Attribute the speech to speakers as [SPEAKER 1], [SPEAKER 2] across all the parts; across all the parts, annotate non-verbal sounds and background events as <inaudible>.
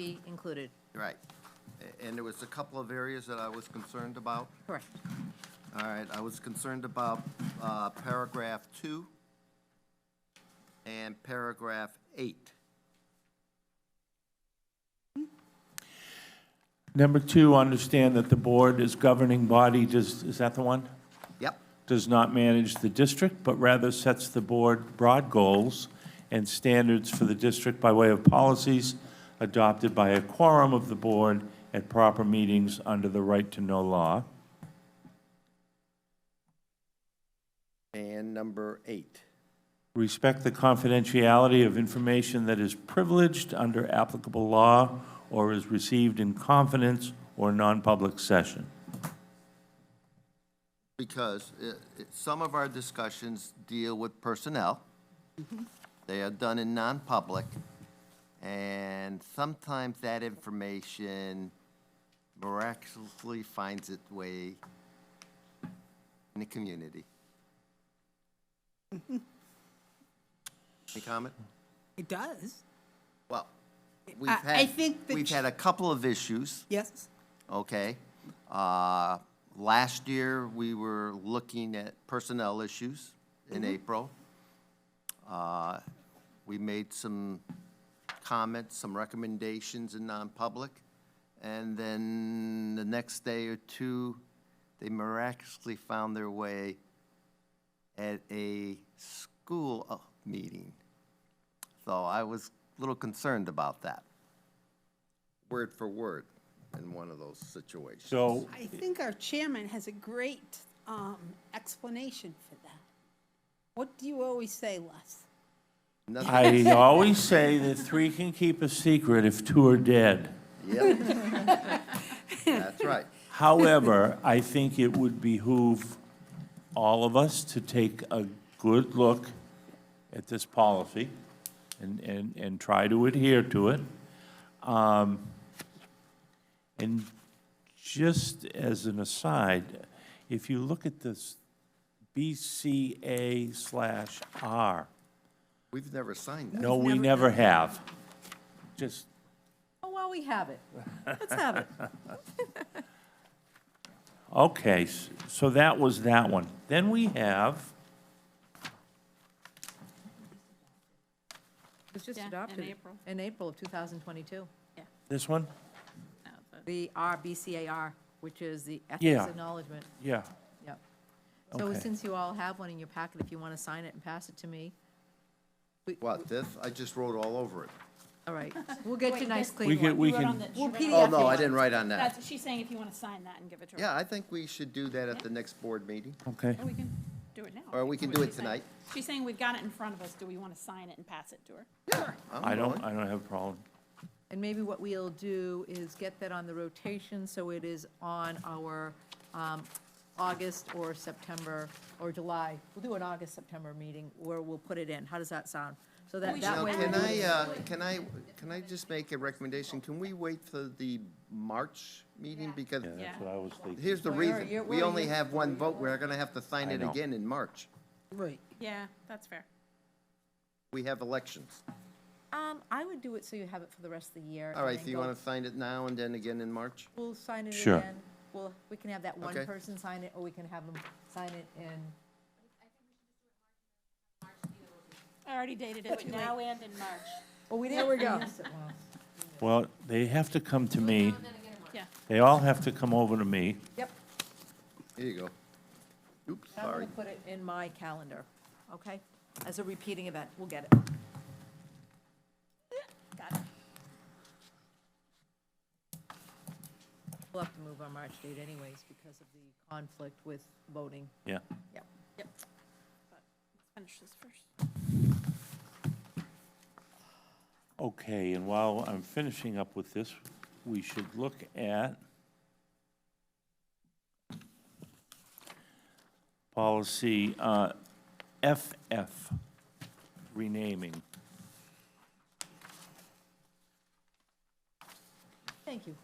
[SPEAKER 1] be included,
[SPEAKER 2] Right. A- And there was a couple of areas that I was concerned about.
[SPEAKER 1] correct.
[SPEAKER 2] All right, I was concerned about uh, paragraph two and paragraph eight.
[SPEAKER 3] Number two, understand that the board is governing body, does, is that the one?
[SPEAKER 2] Yep,
[SPEAKER 3] Does not manage the district, but rather sets the board broad goals and standards for the district by way of policies adopted by a quorum of the board at proper meetings under the right to know law.
[SPEAKER 2] and number eight.
[SPEAKER 3] Respect the confidentiality of information that is privileged under applicable law or is received in confidence or non-public session.
[SPEAKER 2] because uh, it- some of our discussions deal with personnel.
[SPEAKER 4] Mm-hmm.
[SPEAKER 2] They are done in non-public, and sometimes that information miraculously finds its way in the community.
[SPEAKER 4] Mm-hmm.
[SPEAKER 2] Any comment?
[SPEAKER 4] It does.
[SPEAKER 2] Well, we've
[SPEAKER 4] I- I
[SPEAKER 2] had,
[SPEAKER 4] think the
[SPEAKER 2] we've
[SPEAKER 4] ch-
[SPEAKER 2] had a couple of issues
[SPEAKER 4] Yes.
[SPEAKER 2] okay? Uh, Last year, we were looking at personnel issues in April. Uh, We made some comments, some recommendations in non-public, and then the next day or two, they miraculously found their way at a school uh, meeting. So I was a little concerned about that, word for word, in one of those situations.
[SPEAKER 3] So
[SPEAKER 4] I think our chairman has a great um, explanation for that. What do you always say, Les?
[SPEAKER 2] Nothing-
[SPEAKER 3] I always say that three can keep a secret if two are dead. <laughs>
[SPEAKER 2] Yep. That's right.
[SPEAKER 3] However, I think it would behoove all of us to take a good look at this policy and, and, and try to adhere to it. Um, And just as an aside, if you look at this BCA slash R,
[SPEAKER 2] We've never signed that.
[SPEAKER 3] no, we never have. Just
[SPEAKER 1] Oh, well, we have it. Let's have
[SPEAKER 5] <laughs>
[SPEAKER 1] it.
[SPEAKER 3] Okay, s- so that was that one. Then we have,
[SPEAKER 1] It was just
[SPEAKER 5] Yeah, in
[SPEAKER 1] adopted.
[SPEAKER 5] April.
[SPEAKER 1] In April of 2022.
[SPEAKER 3] this one?
[SPEAKER 1] The RBCAR, which is the
[SPEAKER 3] Yeah.
[SPEAKER 1] Ethics Acknowledgement,
[SPEAKER 3] Yeah.
[SPEAKER 1] yep. So
[SPEAKER 3] Okay.
[SPEAKER 1] since you all have one in your packet, if you want to sign it and pass it to me,
[SPEAKER 2] What, this? I just wrote all over it.
[SPEAKER 1] all
[SPEAKER 5] <laughs>
[SPEAKER 1] right, we'll get you nice
[SPEAKER 3] We
[SPEAKER 1] clean
[SPEAKER 3] can,
[SPEAKER 1] one.
[SPEAKER 3] we
[SPEAKER 5] You wrote on
[SPEAKER 3] can,
[SPEAKER 5] the- she
[SPEAKER 1] Well,
[SPEAKER 5] wrote on
[SPEAKER 1] PDF
[SPEAKER 2] Oh,
[SPEAKER 5] the-
[SPEAKER 2] no, I didn't write on that.
[SPEAKER 5] That's, she's saying if you want to sign that and give it to her.
[SPEAKER 2] Yeah, I think we should do that at the next board meeting.
[SPEAKER 3] okay.
[SPEAKER 5] Or we can do it now.
[SPEAKER 2] Or we can
[SPEAKER 5] That's
[SPEAKER 2] do it
[SPEAKER 5] what she's saying.
[SPEAKER 2] tonight.
[SPEAKER 5] She's saying we've got it in front of us. Do we want to sign it and pass it to her?
[SPEAKER 2] I'm
[SPEAKER 3] I don't,
[SPEAKER 2] willing.
[SPEAKER 3] I don't have a problem.
[SPEAKER 1] And maybe what we'll do is get that on the rotation, so it is on our um, August or September or July. We'll do an August, September meeting where we'll put it in. How does that sound? So that,
[SPEAKER 5] We
[SPEAKER 1] that
[SPEAKER 2] Now,
[SPEAKER 1] way.
[SPEAKER 5] should wait.
[SPEAKER 2] can
[SPEAKER 1] we'll-
[SPEAKER 2] I, uh, can I, can I just make a recommendation? Can we wait for the March meeting? Because
[SPEAKER 3] Yeah, that's
[SPEAKER 5] Yeah.
[SPEAKER 3] what I was thinking.
[SPEAKER 2] here's the
[SPEAKER 1] Well, you're-
[SPEAKER 2] reason.
[SPEAKER 1] you're-
[SPEAKER 2] We
[SPEAKER 1] well,
[SPEAKER 2] only
[SPEAKER 1] you're-
[SPEAKER 2] have one vote. We're gonna have to sign
[SPEAKER 3] I
[SPEAKER 2] it
[SPEAKER 3] know.
[SPEAKER 2] again in March.
[SPEAKER 4] Right.
[SPEAKER 5] Yeah, that's fair.
[SPEAKER 2] We have elections.
[SPEAKER 1] Um, I would do it so you have it for the rest of the year.
[SPEAKER 2] All
[SPEAKER 1] and
[SPEAKER 2] right,
[SPEAKER 1] then
[SPEAKER 2] so you
[SPEAKER 1] go-
[SPEAKER 2] wanna sign it now and then again in March?
[SPEAKER 1] We'll sign it
[SPEAKER 3] Sure.
[SPEAKER 1] again. Well, we can have that one
[SPEAKER 2] Okay.
[SPEAKER 1] person sign it, or we can have them sign it in,
[SPEAKER 5] I already dated it. Now and in March.
[SPEAKER 1] oh, we didn't. There we go.
[SPEAKER 3] Well, they have to come to me.
[SPEAKER 5] Yeah.
[SPEAKER 3] They all have to come over to me.
[SPEAKER 1] Yep,
[SPEAKER 2] Here you go. Oops,
[SPEAKER 1] I'm gonna
[SPEAKER 2] sorry.
[SPEAKER 1] put it in my calendar, okay? As a repeating event, we'll get it.
[SPEAKER 5] Got it.
[SPEAKER 1] We'll have to move our March date anyways because of the conflict with voting.
[SPEAKER 3] Yeah.
[SPEAKER 1] Yep.
[SPEAKER 5] Yep. But let's Finish this first.
[SPEAKER 3] Okay, and while I'm finishing up with this, we should look at policy uh, FF, renaming.
[SPEAKER 1] Thank you.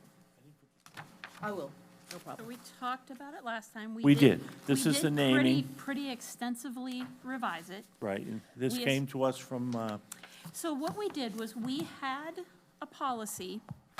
[SPEAKER 1] I will, no
[SPEAKER 5] So
[SPEAKER 1] problem.
[SPEAKER 5] we talked about it last time.
[SPEAKER 3] We did. This
[SPEAKER 5] we
[SPEAKER 3] is the
[SPEAKER 5] did pretty-
[SPEAKER 3] naming.
[SPEAKER 5] Pretty extensively revise it.
[SPEAKER 3] Right, and this
[SPEAKER 5] We as-
[SPEAKER 3] came to us from, uh,
[SPEAKER 5] So what we did was we had a policy